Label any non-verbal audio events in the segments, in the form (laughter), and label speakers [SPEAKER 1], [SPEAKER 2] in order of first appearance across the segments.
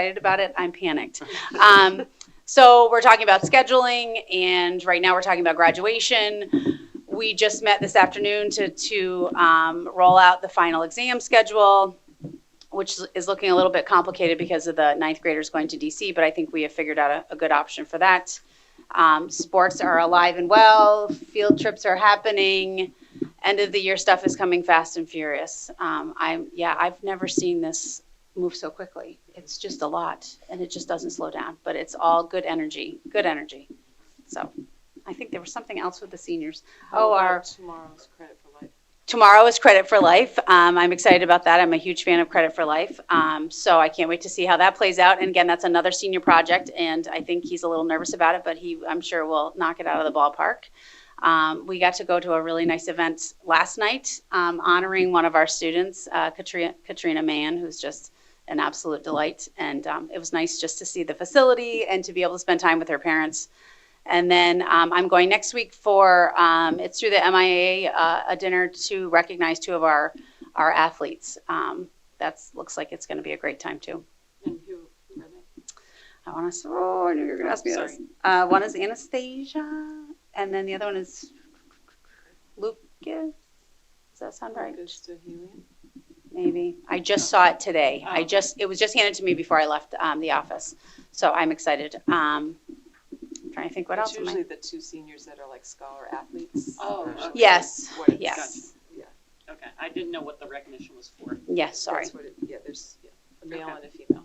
[SPEAKER 1] excited about it. I'm panicked. Um, so we're talking about scheduling, and right now we're talking about graduation. We just met this afternoon to to um, roll out the final exam schedule, which is looking a little bit complicated because of the ninth graders going to DC. But I think we have figured out a, a good option for that. Um, sports are alive and well. Field trips are happening. End of the year stuff is coming fast and furious. Um, I'm yeah, I've never seen this move so quickly. It's just a lot, and it just doesn't slow down. But it's all good energy, good energy. So, I think there was something else with the seniors. Oh, our
[SPEAKER 2] Tomorrow's credit for life.
[SPEAKER 1] tomorrow is Credit for Life. Um, I'm excited about that. I'm a huge fan of Credit for Life. Um, so I can't wait to see how that plays out. And again, that's another senior project, and I think he's a little nervous about it, but he, I'm sure, will knock it out of the ballpark. Um, we got to go to a really nice event last night um, honoring one of our students, uh, Katrina, Katrina Mann, who's just an absolute delight. And um, it was nice just to see the facility and to be able to spend time with her parents. And then um, I'm going next week for um, it's through the MIA uh, a dinner to recognize two of our our athletes. Um, that's looks like it's going to be a great time too.
[SPEAKER 2] And who, who are they?
[SPEAKER 1] I want to. Oh, I knew you were going to ask me this.
[SPEAKER 2] Sorry.
[SPEAKER 1] Uh, one is Anastasia, and then the other one is Lucas. Does that sound right?
[SPEAKER 2] Goes to Helium?
[SPEAKER 1] Maybe. I just saw it today.
[SPEAKER 3] Oh.
[SPEAKER 1] I just, it was just handed to me before I left um, the office. So I'm excited. Um, trying to think what
[SPEAKER 3] It's
[SPEAKER 1] else am
[SPEAKER 3] usually
[SPEAKER 1] I?
[SPEAKER 3] the two seniors that are like scholar athletes.
[SPEAKER 2] Oh,
[SPEAKER 3] Usually
[SPEAKER 2] okay.
[SPEAKER 1] Yes,
[SPEAKER 3] what it's-
[SPEAKER 1] yes,
[SPEAKER 2] Okay, I didn't know what the recognition was for.
[SPEAKER 1] yes, sorry.
[SPEAKER 3] That's what it, yeah, there's yeah, a male
[SPEAKER 2] Okay.
[SPEAKER 3] and a female.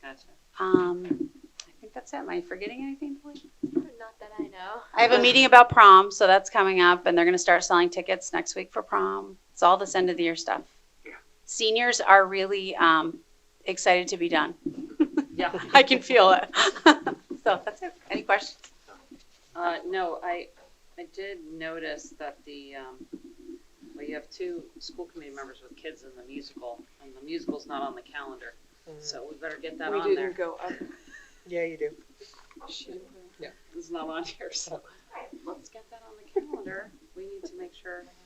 [SPEAKER 2] Gotcha.
[SPEAKER 1] Um, I think that's it. Am I forgetting anything? Blake?
[SPEAKER 4] Not that I know.
[SPEAKER 1] I have a meeting about prom, so that's coming up, and they're going to start selling tickets next week for prom. It's all this end of the year stuff. Seniors are really um, excited to be done. (laughs)
[SPEAKER 2] Yeah.
[SPEAKER 1] I can feel it. (laughs) so that's it. Any questions?
[SPEAKER 2] Uh, no, I, I did notice that the, um, well, you have two school committee members with kids in the musical, and the musical's not on the calendar, so we better get that
[SPEAKER 3] we
[SPEAKER 2] on
[SPEAKER 3] didn't
[SPEAKER 2] there.
[SPEAKER 3] go up.
[SPEAKER 5] Yeah, you do.
[SPEAKER 3] She didn't go.
[SPEAKER 2] It's not on here, so let's get that on the calendar. We need to make sure. There's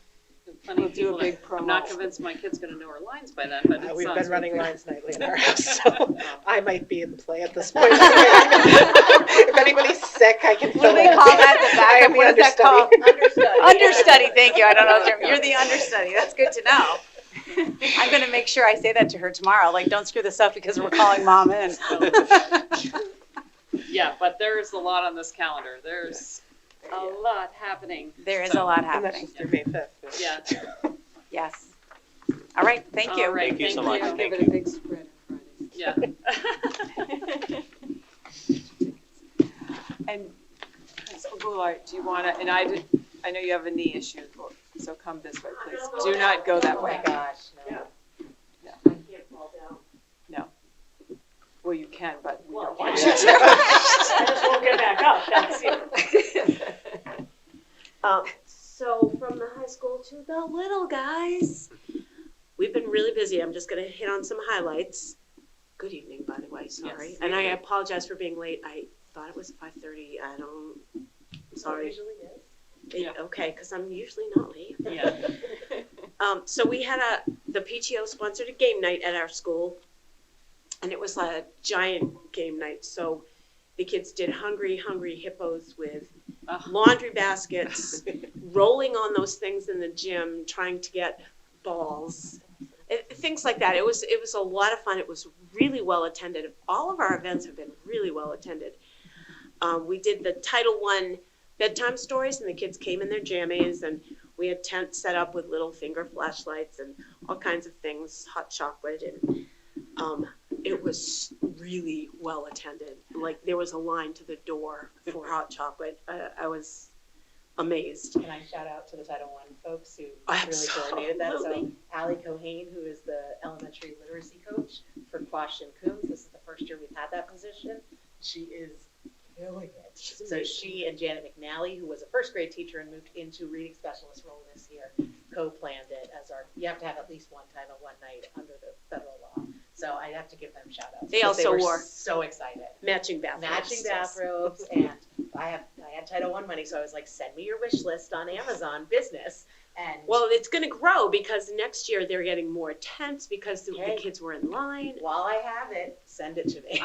[SPEAKER 2] Plenty
[SPEAKER 3] We'll
[SPEAKER 2] of
[SPEAKER 3] do a
[SPEAKER 2] people, that-
[SPEAKER 3] big
[SPEAKER 2] I'm not
[SPEAKER 3] promo.
[SPEAKER 2] convinced my kid's gonna know her lines by then, but
[SPEAKER 5] Uh,
[SPEAKER 2] it
[SPEAKER 5] We've
[SPEAKER 2] sounds
[SPEAKER 5] been running
[SPEAKER 2] good.
[SPEAKER 5] lines nightly in
[SPEAKER 2] (laughs)
[SPEAKER 5] our house, so
[SPEAKER 2] Um,
[SPEAKER 5] I might be in the play at this point. (laughs) If anybody's sick, I can
[SPEAKER 1] What
[SPEAKER 5] fill
[SPEAKER 1] do they
[SPEAKER 5] in.
[SPEAKER 1] call that? The
[SPEAKER 5] I am
[SPEAKER 1] backup?
[SPEAKER 5] the
[SPEAKER 1] What is that
[SPEAKER 5] (laughs)
[SPEAKER 1] called?
[SPEAKER 5] understudy.
[SPEAKER 1] Understudy. Thank you. I don't know. the term. You're (laughs) the understudy. That's good to know. I'm going to make sure I say that to her tomorrow. Like, don't screw this up because we're calling mom in. (laughs)
[SPEAKER 2] Yeah, but there's a lot on this calendar. There's a lot happening.
[SPEAKER 1] There is a lot
[SPEAKER 5] And that's
[SPEAKER 1] happening.
[SPEAKER 5] just through May fifth.
[SPEAKER 2] Yeah.
[SPEAKER 1] Yes. All right. Thank
[SPEAKER 2] All
[SPEAKER 1] you.
[SPEAKER 2] right,
[SPEAKER 6] Thank you so much.
[SPEAKER 2] you.
[SPEAKER 6] Thank
[SPEAKER 3] Give it a big spread on Friday.
[SPEAKER 2] Yeah.
[SPEAKER 3] And Ms. Goulart, Oh, do you want to, and I did, I know you have a knee issue, so come this way, please. Do not go that
[SPEAKER 2] Oh
[SPEAKER 3] way.
[SPEAKER 5] gosh,
[SPEAKER 7] (laughs)
[SPEAKER 3] Well, you can, but we don't
[SPEAKER 2] Well,
[SPEAKER 3] want you to.
[SPEAKER 7] I just won't get back up, that's it. (laughs) Um, so from the high school to the little guys. We've been really busy. I'm just gonna hit on some highlights. Good evening, by the way, sorry.
[SPEAKER 2] Yes.
[SPEAKER 7] And I apologize for being late. I thought it was five thirty. I don't, sorry. It-
[SPEAKER 2] Yeah.
[SPEAKER 7] Okay, because I'm usually not late.
[SPEAKER 2] Yeah.
[SPEAKER 7] Um, so we had a, the PTO sponsored a game night at our school, and it was a giant game night. So the kids did hungry, hungry hippos with
[SPEAKER 2] Uh.
[SPEAKER 7] laundry baskets, rolling on those things in the gym, trying to get balls, it, things like that. It was it was a lot of fun. It was really well attended. All of our events have been really well attended. Um, we did the Title One bedtime stories, and the kids came in their jammies and we had tents set up with little finger flashlights and all kinds of things, hot chocolate, and um, it was really well attended. Like there was a line to the door for hot chocolate. I, I was amazed.
[SPEAKER 8] Can I shout out to the Title I folks who really
[SPEAKER 7] Absolutely.
[SPEAKER 8] coordinated that? So Allie Cohane, who is the elementary literacy coach for Quash and Coombs, this is the first year we've had that position. She is killing it. So she and Janet McNally, who was a first grade teacher and moved into reading specialist role this year, co-planned it as our, you have to have at least one time and one night under the federal law. So I have to give them shout outs.
[SPEAKER 7] They
[SPEAKER 8] because
[SPEAKER 7] also
[SPEAKER 8] were
[SPEAKER 7] wore-
[SPEAKER 8] So excited
[SPEAKER 7] Matching bathrooms.
[SPEAKER 8] matching bathrobes and I have I had Title One money, so I was like, send me your wish list on Amazon business. and.
[SPEAKER 7] Well, it's going to grow because next year they're getting more tents because the, the
[SPEAKER 8] Okay.
[SPEAKER 7] kids were in line.
[SPEAKER 8] While I have it, send it to me.